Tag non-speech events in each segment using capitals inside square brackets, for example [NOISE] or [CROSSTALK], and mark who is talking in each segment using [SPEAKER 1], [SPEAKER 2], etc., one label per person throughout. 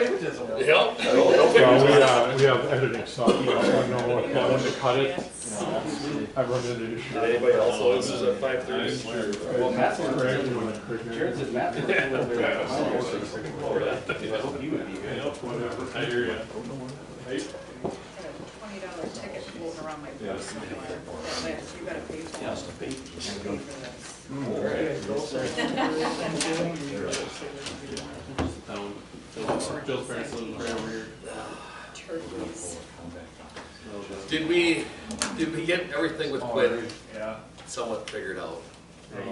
[SPEAKER 1] Yeah, no,
[SPEAKER 2] Well,
[SPEAKER 1] no
[SPEAKER 2] we,
[SPEAKER 1] figures.
[SPEAKER 2] uh, we have editing software, I don't know what, when to cut it. I run into issues.
[SPEAKER 1] Did anybody else notice this at five thirty?
[SPEAKER 3] Well, Matt's one of
[SPEAKER 2] Craig
[SPEAKER 3] the-
[SPEAKER 2] doing it quicker.
[SPEAKER 3] Jared says Matt's one of the- I hope you would be good.
[SPEAKER 4] I hear ya.
[SPEAKER 5] twenty dollar ticket floating around my purse somewhere. that lives, you gotta pay for it. Pay for this.
[SPEAKER 4] Um, Phil's Phil's parents live right over here.
[SPEAKER 5] Turkeys.
[SPEAKER 1] Did we, did we get everything with Quinn
[SPEAKER 2] Yeah.
[SPEAKER 1] somewhat figured
[SPEAKER 4] Oh,
[SPEAKER 1] out?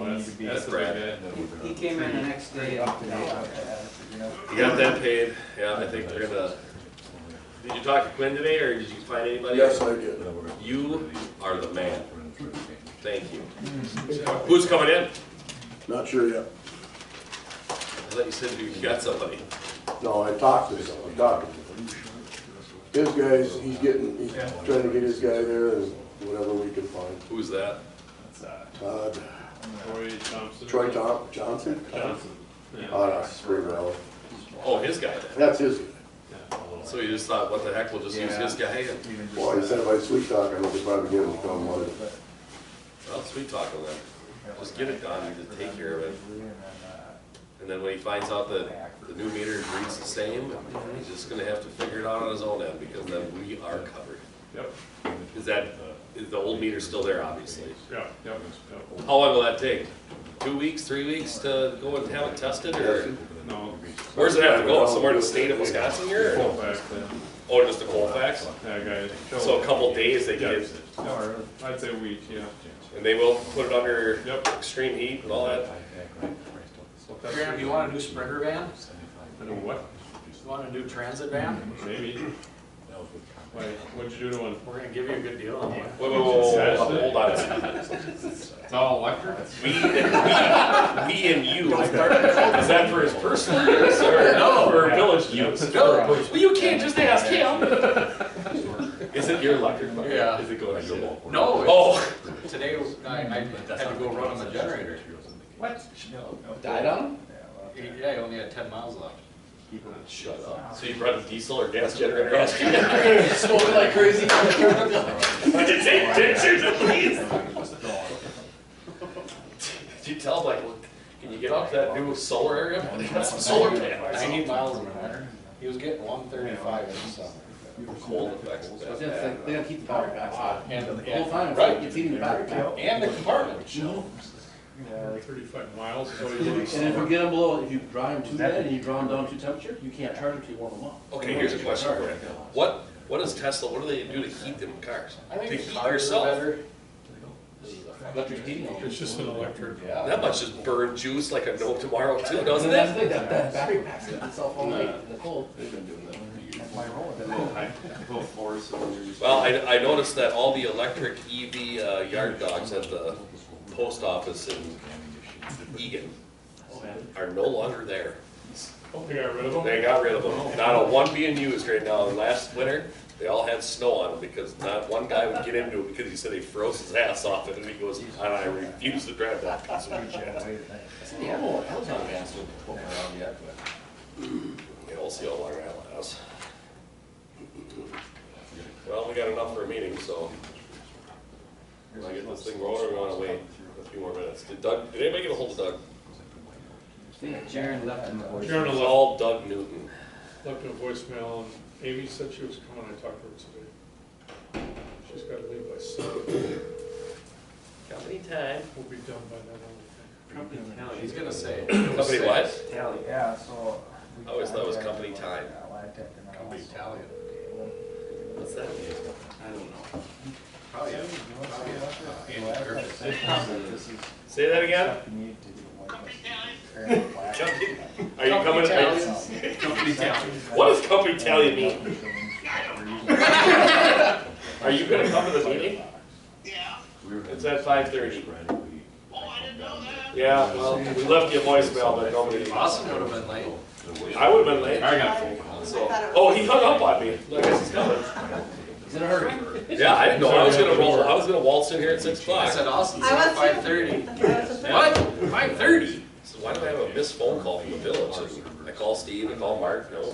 [SPEAKER 4] That's that's the big guy.
[SPEAKER 3] He came in the next day off the day after that.
[SPEAKER 1] You got that paid, yeah, I think we're gonna, did you talk to Quinn today, or did you find anybody?
[SPEAKER 6] Yes, I did.
[SPEAKER 1] You are the man, thank you. Who's coming in?
[SPEAKER 6] Not sure
[SPEAKER 1] I
[SPEAKER 6] yet.
[SPEAKER 1] thought you said you got somebody.
[SPEAKER 6] No, I talked to him, I talked to him. His guys, he's getting, he's trying to get his guy there and whatever we can find.
[SPEAKER 1] Who's that?
[SPEAKER 4] That's, uh,
[SPEAKER 6] Todd,
[SPEAKER 4] Troy Thompson. Uh,
[SPEAKER 6] Troy Tom, Johnson?
[SPEAKER 4] Johnson. Yeah.
[SPEAKER 6] Out of Spring Valley.
[SPEAKER 1] Oh, his guy.
[SPEAKER 6] That's his.
[SPEAKER 1] So you just thought, what the heck, we'll just use his guy, and,
[SPEAKER 6] Well, he said if I sweet talk, I could probably get him to come one.
[SPEAKER 1] well, sweet talking then. Just get it done, just take care of it. And then when he finds out that the new meter reads the same, he's just gonna have to figure it out on his own end, because then we are covered.
[SPEAKER 4] Yep,
[SPEAKER 1] Is that, is the old meter still there, obviously?
[SPEAKER 4] yep, yep, yep.
[SPEAKER 1] How long will that take? Two weeks, three weeks to go and have it tested, or
[SPEAKER 4] No,
[SPEAKER 1] where's it have to go, somewhere in the state of Wisconsin here? or-
[SPEAKER 4] Colfax, uh,
[SPEAKER 1] Oh, just to Colfax?
[SPEAKER 4] that guy.
[SPEAKER 1] So a couple days they get it,
[SPEAKER 4] Or, I'd say week, yeah.
[SPEAKER 1] and they will put it under
[SPEAKER 4] Yep.
[SPEAKER 1] extreme heat and all that?
[SPEAKER 4] So that's-
[SPEAKER 3] Graham, you want a new Springer van?
[SPEAKER 4] I know what,
[SPEAKER 3] You want a new transit van?
[SPEAKER 4] maybe. Why, what'd you do to one?
[SPEAKER 3] We're gonna give you a good deal on one.
[SPEAKER 1] Whoa, whoa, whoa, whoa, whoa, hold on a second.
[SPEAKER 4] It's all electric?
[SPEAKER 1] We, and- we, we and you, is that for his personal use, or for village use? Well, you can't just ask
[SPEAKER 3] [LAUGHS]
[SPEAKER 1] him. Is it your electric bucket?
[SPEAKER 3] Yeah.
[SPEAKER 1] Is it going to your wall?
[SPEAKER 3] No, it's-
[SPEAKER 1] Oh,
[SPEAKER 3] today I, I had to go run on the generator. What? Died on him? Yeah, he only had ten miles left.
[SPEAKER 1] shut up. So you brought a diesel or gas generator? Did [LAUGHS]
[SPEAKER 3] Smoking like crazy.
[SPEAKER 1] you take pictures of these? Did you tell, like, look, can you get off that new solar area? They got some solar panels.
[SPEAKER 3] Ninety miles an hour. He was getting one thirty-five in the summer.
[SPEAKER 1] Cold effects. of that.
[SPEAKER 7] They don't keep the battery packs on.
[SPEAKER 3] And,
[SPEAKER 7] The whole time,
[SPEAKER 3] and,
[SPEAKER 7] it's
[SPEAKER 3] right,
[SPEAKER 7] like, it's eating the battery pack.
[SPEAKER 3] and the compartment.
[SPEAKER 4] Thirty-five miles, so
[SPEAKER 7] And if you get them below, if you dry them too bad and you draw them down to temperature, you can't charge them till you warm them up.
[SPEAKER 1] Okay, here's a question for you. What, what does Tesla, what do they do to heat them cars?
[SPEAKER 3] I think
[SPEAKER 1] To
[SPEAKER 3] it's
[SPEAKER 1] heat
[SPEAKER 3] hotter,
[SPEAKER 1] yourself?
[SPEAKER 3] better. Electric heating.
[SPEAKER 4] it's just an electric.
[SPEAKER 3] Yeah.
[SPEAKER 1] That must just burn juice like a no tomorrow too, doesn't
[SPEAKER 7] And that's
[SPEAKER 1] it?
[SPEAKER 7] the thing, that, that battery pack's in itself all night in the cold.
[SPEAKER 1] Well, I, I noticed that all the electric EV uh, yard dogs at the post office in Egan are no longer there.
[SPEAKER 4] Oh, they got rid of them?
[SPEAKER 1] They got rid of them. Not a one being used right now. And last winter, they all had snow on them because not one guy would get into it because he said he froze his ass off it and he goes, and I refuse to drive that piece of shit.
[SPEAKER 7] Yeah, well, Peloton vans would pull around yet, but.
[SPEAKER 1] Yeah, we'll see how long that lasts. Well, we got enough for a meeting, so. Can I get this thing rolling or we wanna wait a few more minutes? Did Doug, did anybody get a hold of Doug?
[SPEAKER 3] Jaren left him a voice.
[SPEAKER 4] Sharon
[SPEAKER 1] It was
[SPEAKER 4] left,
[SPEAKER 1] all Doug Newton.
[SPEAKER 4] left a voicemail, and Amy said she was coming, I talked to her today. She's gotta leave by seven,
[SPEAKER 1] Company time.
[SPEAKER 4] we'll be done by then, I
[SPEAKER 3] He's gonna say.
[SPEAKER 1] Company what?
[SPEAKER 8] Tally, yeah, so. we
[SPEAKER 1] I always thought it was company time.
[SPEAKER 8] contacted, uh, Lytec and all.
[SPEAKER 3] Company Italian.
[SPEAKER 1] What's that?
[SPEAKER 3] I don't know. Probably.
[SPEAKER 8] So I thought
[SPEAKER 3] Perfect.
[SPEAKER 8] this is
[SPEAKER 1] Say that again?
[SPEAKER 8] stuff you need to do. Company Italian.
[SPEAKER 1] Company, are you coming? are you-
[SPEAKER 3] Company Italian.
[SPEAKER 1] What does company tally mean? Are you gonna come to the meeting? [LAUGHS] Yeah. It's at five thirty. Yeah, well, we left you a voicemail, but nobody.
[SPEAKER 3] Austin would have been late.
[SPEAKER 1] I would've been late.
[SPEAKER 4] I got fooled.
[SPEAKER 1] So, oh, he hung up on me. I guess he's coming.
[SPEAKER 7] He's in a hurry.
[SPEAKER 1] Yeah, I didn't know. I was gonna roll. I was gonna waltz in here at six
[SPEAKER 3] I
[SPEAKER 1] o'clock.
[SPEAKER 3] said Austin's
[SPEAKER 5] I
[SPEAKER 3] at
[SPEAKER 5] was-
[SPEAKER 3] five thirty.
[SPEAKER 1] What? Five thirty? So why do I have a missed phone call from the village? And I call Steve. I call Mark. No